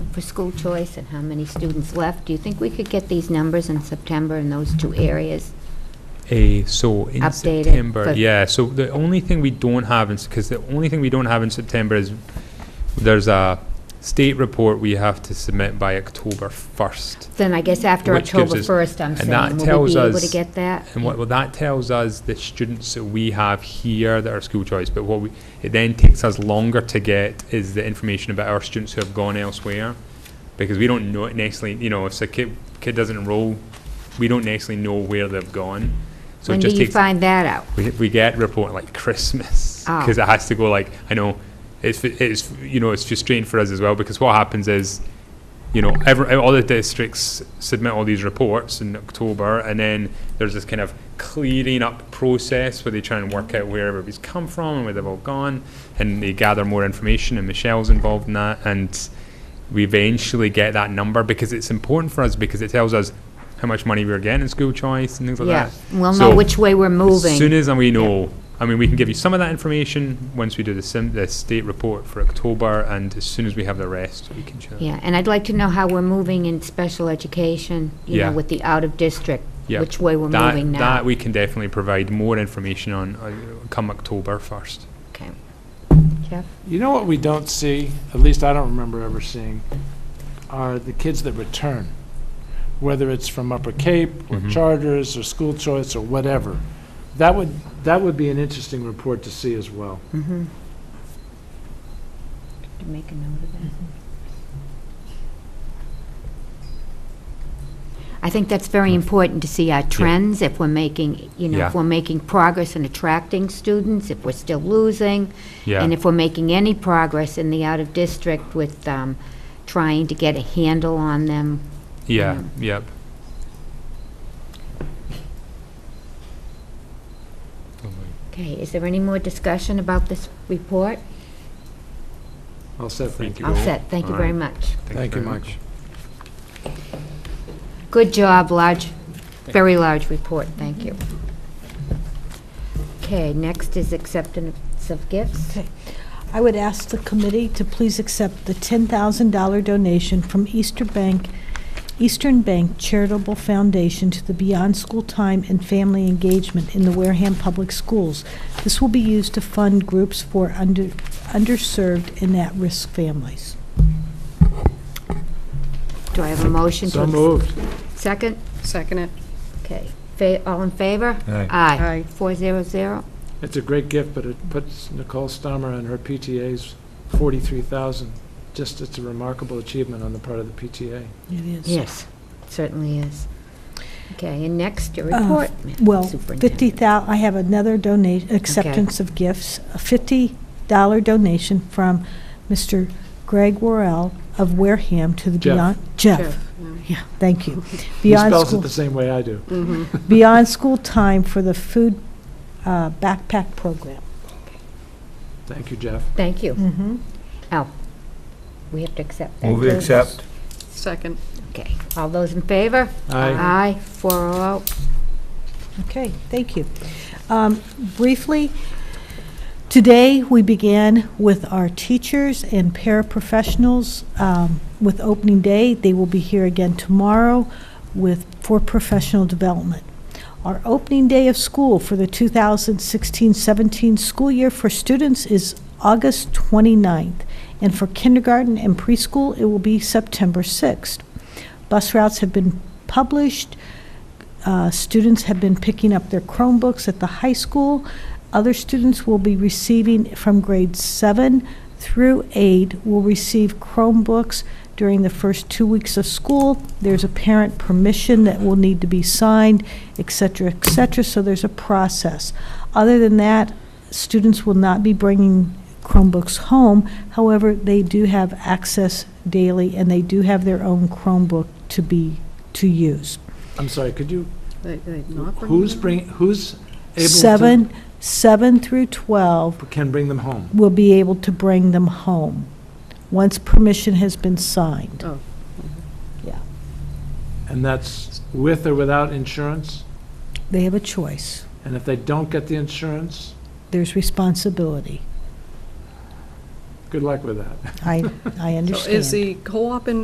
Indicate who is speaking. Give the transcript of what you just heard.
Speaker 1: for school choice and how many students left. Do you think we could get these numbers in September in those two areas?
Speaker 2: A, so in
Speaker 1: Updated,
Speaker 2: September,
Speaker 1: but-
Speaker 2: yeah, so the only thing we don't have in, because the only thing we don't have in September is, there's a state report we have to submit by October first.
Speaker 1: Then I guess after
Speaker 2: Which gives
Speaker 1: October
Speaker 2: us-
Speaker 1: 1st, I'm
Speaker 2: and that
Speaker 1: saying, will we
Speaker 2: tells
Speaker 1: be able to
Speaker 2: us-
Speaker 1: get that?
Speaker 2: And what, well, that tells us the students that we have here that are school choice, but what we, it then takes us longer to get is the information about our students who have gone elsewhere. Because we don't know it necessarily, you know, if a kid, kid doesn't enroll, we don't necessarily know where they've gone. So it
Speaker 1: When do
Speaker 2: just
Speaker 1: you
Speaker 2: takes,
Speaker 1: find that out?
Speaker 2: we, we get report like Christmas,
Speaker 1: Ah.
Speaker 2: because it has to go like, I know, it's, it's, you know, it's frustrating for us as well, because what happens is, you know, every, all the districts submit all these reports in October, and then there's this kind of clearing up process where they try and work out where everybody's come from and where they've all gone, and they gather more information, and Michelle's involved in that, and we eventually get that number, because it's important for us, because it tells us how much money we're getting in school choice and things like
Speaker 1: Yeah,
Speaker 2: that.
Speaker 1: we'll
Speaker 2: So-
Speaker 1: know which way we're
Speaker 2: as soon
Speaker 1: moving.
Speaker 2: as we know, I mean, we can give you some of that information once we do the sim, the state report for October, and as soon as we have the rest, we can share.
Speaker 1: Yeah, and I'd like to know how we're moving in special education, you
Speaker 2: Yeah.
Speaker 1: know, with the out-of-district,
Speaker 2: Yeah.
Speaker 1: which way we're
Speaker 2: That-
Speaker 1: moving
Speaker 2: That
Speaker 1: now.
Speaker 2: we can definitely provide more information on, uh, come October first.
Speaker 1: Okay. Jeff?
Speaker 3: You know what we don't see, at least I don't remember ever seeing, are the kids that return, whether it's from Upper Cape, or
Speaker 2: Mhm.
Speaker 3: charters, or school choice, or whatever. That would, that would be an interesting report to see as well.
Speaker 1: Mm-hmm. To make a note of that. I think that's very important to see our trends, if we're making, you know,
Speaker 2: Yeah.
Speaker 1: if we're making progress in attracting students, if we're still losing, and
Speaker 2: Yeah,
Speaker 1: if we're making any progress in the out-of-district with um, trying to get a handle on them. Mm.
Speaker 2: yeah, yep.
Speaker 1: Okay, is there any more discussion about this report?
Speaker 3: I'll set
Speaker 2: Thank you.
Speaker 1: All set, thank you very
Speaker 2: All
Speaker 1: much.
Speaker 3: Thank you,
Speaker 2: very
Speaker 3: Michael.
Speaker 2: much.
Speaker 1: Good job, large, very large report, thank you. Okay, next is acceptance of gifts.
Speaker 4: I would ask the committee to please accept the $10,000 donation from Easter Bank, Eastern Bank Charitable Foundation to the Beyond School Time and Family Engagement in the Wareham Public Schools. This will be used to fund groups for under underserved and at-risk families.
Speaker 1: Do I have a motion to?
Speaker 3: So
Speaker 1: ac-
Speaker 3: moved.
Speaker 1: Second?
Speaker 5: Second it.
Speaker 1: Okay, Fa- all in favor?
Speaker 2: Aye.
Speaker 5: Aye.
Speaker 1: Four zero zero.
Speaker 3: It's a great gift, but it puts Nicole Stummer and her PTA's 43,000. Just, it's a remarkable achievement on the part of the PTA.
Speaker 4: It is.
Speaker 1: Yes, certainly is. Okay, and next, your
Speaker 4: Uh,
Speaker 1: report. Madam
Speaker 4: Well,
Speaker 1: Superintendent.
Speaker 4: fifty thou, I have another donation, acceptance of gifts, a fifty dollar donation from Mr. Greg Worrell of Wareham to the
Speaker 3: Jeff.
Speaker 4: Beyond,
Speaker 5: Jeff,
Speaker 4: Jeff,
Speaker 5: yeah.
Speaker 4: yeah, thank you.
Speaker 3: He
Speaker 4: Beyond
Speaker 3: spells it
Speaker 4: School-
Speaker 3: the same way I do.
Speaker 5: Mhm.
Speaker 4: Beyond School Time for the Food uh, Backpack Program.
Speaker 3: Thank you, Jeff.
Speaker 1: Thank you.
Speaker 4: Mm-hmm.
Speaker 1: We have to accept that.
Speaker 6: Move we
Speaker 1: too?
Speaker 6: accept.
Speaker 5: Second.
Speaker 1: Okay, all those in favor?
Speaker 3: Aye.
Speaker 1: Aye, four oh oh.
Speaker 4: Okay, thank you. Um, Briefly, today, we began with our teachers and paraprofessionals um, with opening day. They will be here again tomorrow with, for professional development. Our opening day of school for the 2016-17 school year for students is August 29th, and for kindergarten and preschool, it will be September 6th. Bus routes have been published, uh, Students have been picking up their Chromebooks at the high school. Other students will be receiving from grade seven through eight will receive Chromebooks during the first two weeks of school. There's a parent permission that will need to be signed, et cetera, et cetera, so there's a process. Other than that, students will not be bringing Chromebooks home. However, they do have access daily, and they do have their own Chromebook to be, to use.
Speaker 3: I'm sorry, could you
Speaker 5: They- they not bring
Speaker 3: Who's
Speaker 5: them?
Speaker 3: bring, who's able to?
Speaker 4: Seven, seven through 12
Speaker 3: Can bring them home.
Speaker 4: will be able to bring them home, once permission has been signed.
Speaker 3: And that's with or without insurance?
Speaker 4: They have a choice.
Speaker 3: And if they don't get the insurance,
Speaker 4: There's responsibility.
Speaker 3: good luck with that.
Speaker 4: I, I
Speaker 5: So is
Speaker 4: understand.
Speaker 5: the co-op in